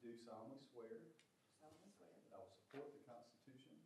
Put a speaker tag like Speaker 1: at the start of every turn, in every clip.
Speaker 1: do solemnly swear
Speaker 2: solemnly swear
Speaker 1: that I will support the Constitution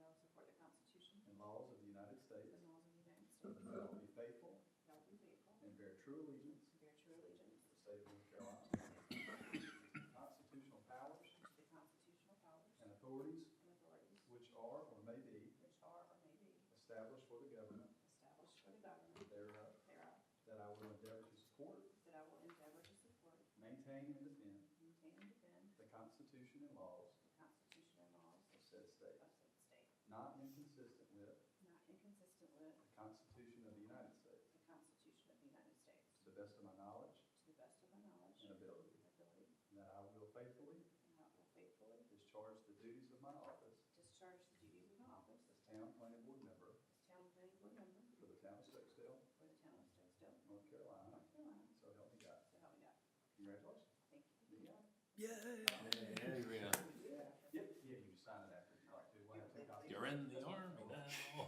Speaker 2: that I will support the Constitution
Speaker 1: and laws of the United
Speaker 2: and
Speaker 1: States,
Speaker 2: laws of the United States,
Speaker 1: that I will be faithful
Speaker 2: that I will be faithful
Speaker 1: and bear true allegiance
Speaker 2: and bear true allegiance
Speaker 1: to the state of North Carolina, to the constitutional powers
Speaker 2: to the constitutional powers
Speaker 1: and authorities
Speaker 2: and authorities
Speaker 1: which are or may be
Speaker 2: which are or may be
Speaker 1: established for the government
Speaker 2: established for the government
Speaker 1: thereof,
Speaker 2: thereof,
Speaker 1: that I will endeavor to support,
Speaker 2: that I will endeavor to support,
Speaker 1: maintain, and defend
Speaker 2: maintain, and defend
Speaker 1: the Constitution and laws
Speaker 2: the Constitution and laws
Speaker 1: of said state,
Speaker 2: of said state,
Speaker 1: not inconsistent with
Speaker 2: not inconsistent with
Speaker 1: the Constitution of the United States,
Speaker 2: the Constitution of the United States,
Speaker 1: to the best of my knowledge
Speaker 2: to the best of my knowledge
Speaker 1: and
Speaker 2: and
Speaker 1: ability,
Speaker 2: ability,
Speaker 1: and that I will faithfully
Speaker 2: and I will faithfully
Speaker 1: discharge the duties of my office
Speaker 2: discharge the duties of my office
Speaker 1: as town planning board member
Speaker 2: as town planning board member
Speaker 1: for the town of Stokesdale,
Speaker 2: for the town of Stokesdale,
Speaker 1: North Carolina,
Speaker 2: North Carolina,
Speaker 1: so help me God.
Speaker 2: so help me God.
Speaker 1: Congratulations.
Speaker 2: Thank you.
Speaker 1: Yeah.
Speaker 3: Yeah, you're in.
Speaker 1: Yeah, yeah, you can sign it after, you like, do one, two copies.
Speaker 3: You're in the army now.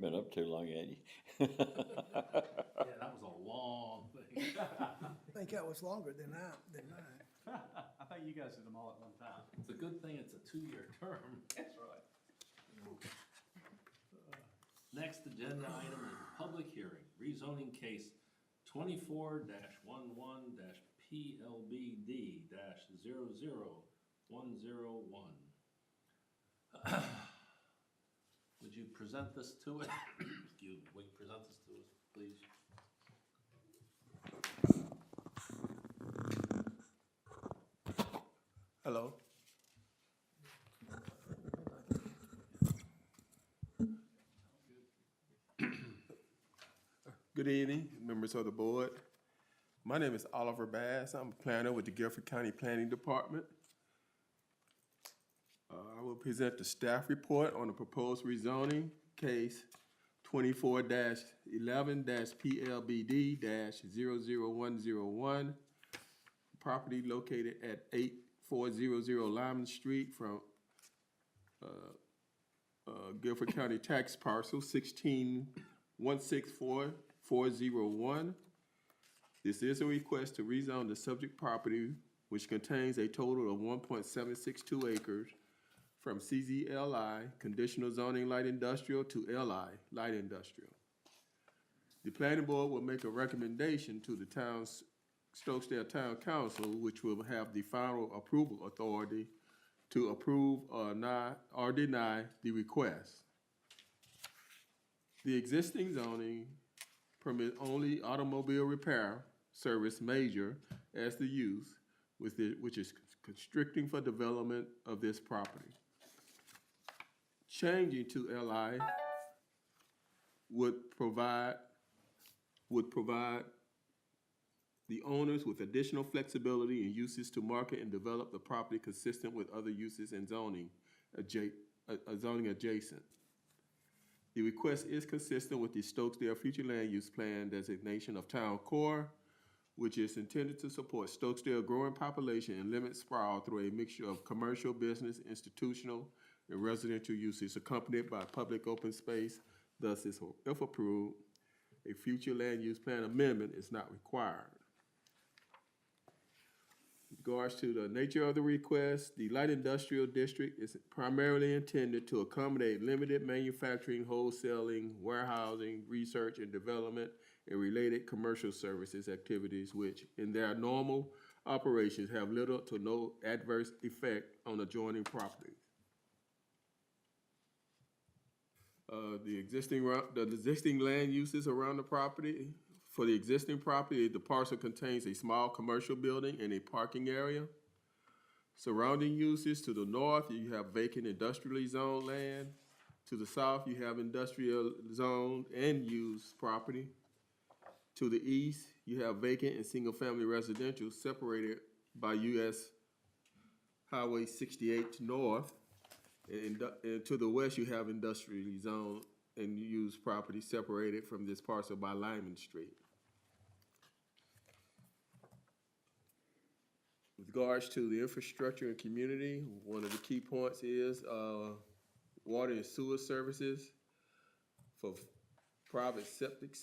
Speaker 4: Been up too long, had you?
Speaker 3: Yeah, that was a long thing.
Speaker 5: I think that was longer than I, than mine.
Speaker 1: I think you guys did them all at one time.
Speaker 3: It's a good thing it's a two-year term.
Speaker 1: That's right.
Speaker 3: Next agenda item is public hearing, rezoning case twenty-four 11 PLBD 10101 Would you present this to us? Excuse me, would you present this to us, please?
Speaker 6: Hello. Good evening, members of the board. My name is Oliver Bass. I'm a planner with the Guilford County Planning Department. Uh, I will present the staff report on the proposed rezoning case twenty-four eleven PLBD 101 property located at eight four zero zero Lyman Street from uh, uh, Guilford County Tax Parcel sixteen one six four four zero one. This is a request to rezone the subject property, which contains a total of one point seven six two acres from CZLI, conditional zoning light industrial, to LI, light industrial. The planning board will make a recommendation to the town's Stokesdale Town Council, which will have the final approval authority to approve or not, or deny the request. The existing zoning permits only automobile repair service major as the use with it, which is constricting for development of this property. Changing to LI would provide, would provide the owners with additional flexibility in uses to market and develop the property consistent with other uses and zoning adja- uh, uh, zoning adjacent. The request is consistent with the Stokesdale Future Land Use Plan designation of town core, which is intended to support Stokesdale growing population and limit sprawl through a mixture of commercial, business, institutional, and residential uses accompanied by public open space. Thus, is- if approved, a future land use plan amendment is not required regards to the nature of the request, the light industrial district is primarily intended to accommodate limited manufacturing, wholesaling, warehousing, research and development, and related commercial services activities which, in their normal operations, have little to no adverse effect on adjoining properties. Uh, the existing, ro- the existing land uses around the property. For the existing property, the parcel contains a small commercial building and a parking area. Surrounding uses, to the north, you have vacant industrially zoned land. To the south, you have industrial zoned and used property. To the east, you have vacant and single-family residential separated by US Highway sixty-eight North. And, indu- and to the west, you have industrially zoned and used property separated from this parcel by Lyman Street. With regards to the infrastructure and community, one of the key points is, uh, water and sewer services for private septic